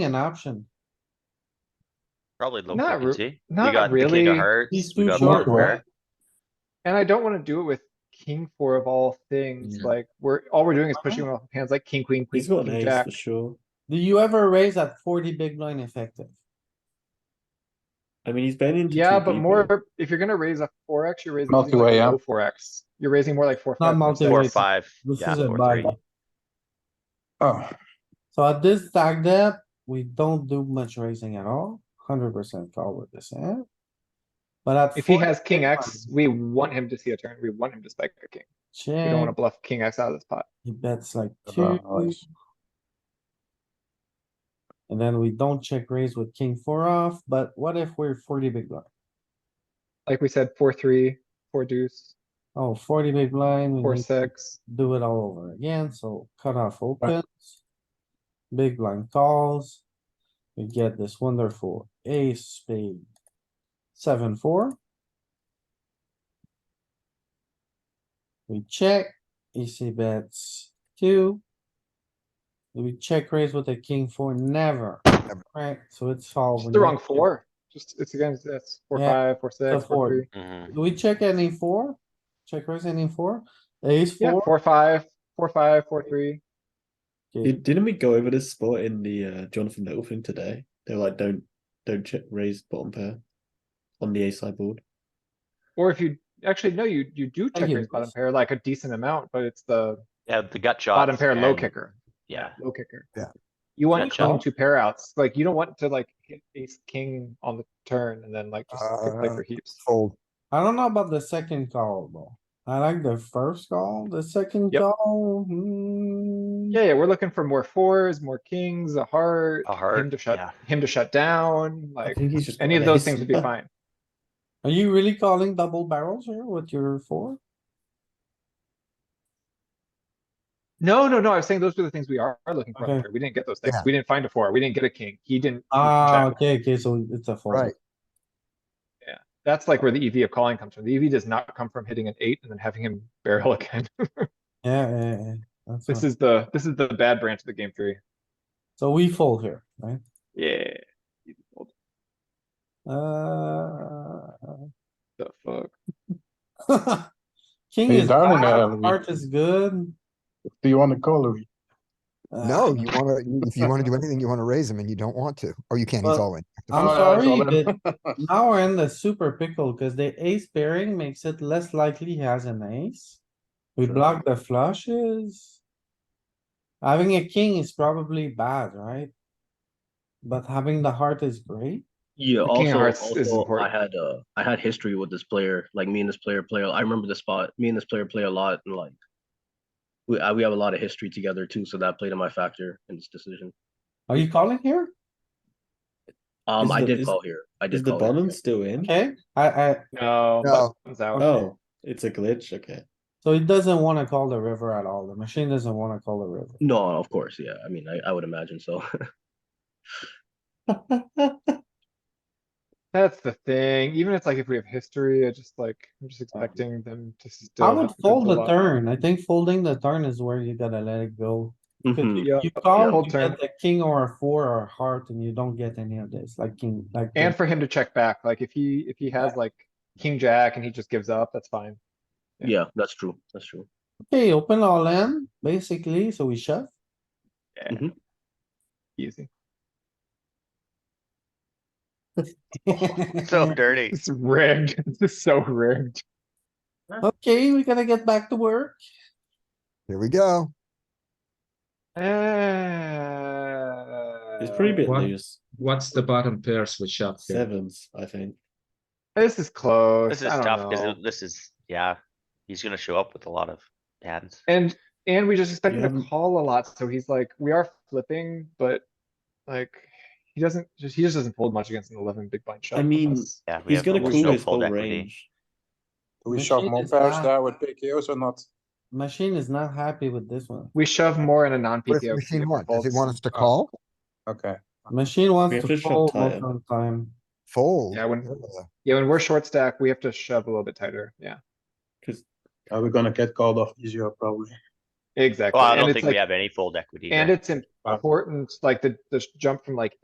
an option. Probably low Not re- frequency. We not got the king of really. hearts, He's we too got short, poker. right? And I don't wanna do it with king four of all things, Yeah. like, we're, all we're doing is pushing off hands like king, queen, queen, Uh-huh. He's got an king, ace jack. for sure. Do you ever raise at forty big blind effective? I mean, he's been into. Yeah, two but people. more, if you're gonna raise a four X, you're raising something Multi-way, like yeah. low four X. You're raising more like four. Not five, four, multi-way. six. Four, Anyways, five, this yeah, is a four, bad three. one. Oh, So at this stack depth, we don't do much raising at all, hundred percent call with this hand. But at. If he 40 has king big X, blind, we want him to see a turn. We want him to spike a king. We don't wanna Check, bluff king X out of this pot. he bets like Uh, two. And then we don't check raise with king four off, but what if we're forty big blind? Like we said, four, three, four deuce, Oh, 40 big blind. we four, need to six. do it all over again, so cutoff opens. Big blind calls. We get this wonderful ace spade. Seven, four. We check, EC bets two. Do We check raise with a king four, never, right? So it's all. Just the wrong four. Just, it's against, that's four, Yeah. five, four, six, four. four, three. Mhm. Do we check any four? Check raise any four? Ace Yeah, four? four, five, four, five, four, three. Okay. Did- Didn't we go over this spot in the uh, Jonathan Little thing today? They were like, don't don't check raise bottom pair on the ace side board. Or if you, actually, no, you, you do check hear raise bottom this. pair like a decent amount, but it's the Yeah, the gut shot. bottom pair low kicker, Yeah, low kicker. Yeah. You want Gotcha. to two pair outs, like you don't want to like hit ace king on the turn and then like just click like Uh, for heaps. fold. I don't know about the second call though. I like the first call, the second Yep. call, hmm, Yeah, yeah, we're looking for more fours, more kings, a heart, a him heart, to yeah. shut, him to shut down, I like think he's just got any of an those ace. things would be fine. Are you really calling double barrels here with your four? No, no, no, I was saying those were the things we are are looking for. on the Okay. turn. We didn't get those things. Yeah. We didn't find a four. We didn't get a king. He didn't. he didn't Ah, check. okay, okay, so it's a fold. Right. That's like where the EV of calling comes from. The EV does not come from hitting an eight and then having him barrel again. Yeah, yeah, yeah. That's This fine. is the, this is the bad branch of the game tree. So we fold here, right? Yeah. Uh. The fuck? King Are you is down in bad, that, Louis? heart is good. Do you want to call Louis? Uh, No, you wanna, you- if you wanna do anything, you wanna raise him and you don't want to, or you can't, he's Well, all in. I'm Oh, no, it's all sorry, but now we're in the super pickle, cause the ace pairing makes it less likely he has an ace. We block the flushes. Having a king is probably bad, right? But having the heart is great. Yeah, The King of also, Hearts is also, I important. had uh I had history with this player. Like me and this player play. I remember this spot. Me and this player play a lot, and like we I, we have a lot of history together too. So that played in my factor in this decision. Are you calling here? Um, Is I the- did is- call here. I did Is the call here, bottom yeah. still in? Okay, I, I, No. No. button's out. Oh, it's a glitch. Okay. so it doesn't wanna call the river at all. The machine doesn't wanna call the river. No, of course, yeah. I mean, I, I would imagine so. That's the thing. Even if it's like if we have history, I just like, I'm just expecting them to still. I would have to fold the up. turn. I think folding the turn is where you gotta let it go. 'Cause Mhm. you- Yeah, You call, fold you turn. get the king or a four or a heart and you don't get any of this, like king, like. And for him to check back, like if he, if he has like king, jack and he just gives up, that's fine. Yeah. yeah, that's true. That's true. Okay, open all in, basically, so we shove. Easy. So dirty. It's rigged. This is so rigged. Okay, we gotta get back to work. Here we go. It's pretty bit One. loose. What's the bottom pair switch up here? Sevens, I think. This is close. This is I don't tough, know. cause it- this is, yeah, he's gonna show up with a lot of hands. And, and we just expect You him to haven't- call a lot, so he's like, we are flipping, but like, he doesn't, just, he just doesn't fold much against an eleven big blind shot. I from mean, us. Yeah, we He's have gonna almost cool no his whole fold equity. range. Do we Machine shove more is pairs bad. there with PKOs or not? Machine is not happy with this one. We shove more in a What non-PKO. if machine one? Does it folds. want us to Oh. call? Okay. Machine We wants have to to shove fold tie most it. of the time. Fold. Yeah, when- Ugh. Yeah, when we're short stack, we have to shove a little bit tighter, yeah. Because Are we gonna get called off easier probably? Exactly. Well, I and don't it's think like- we have any fold equity here. And it's important, like the, the jump from like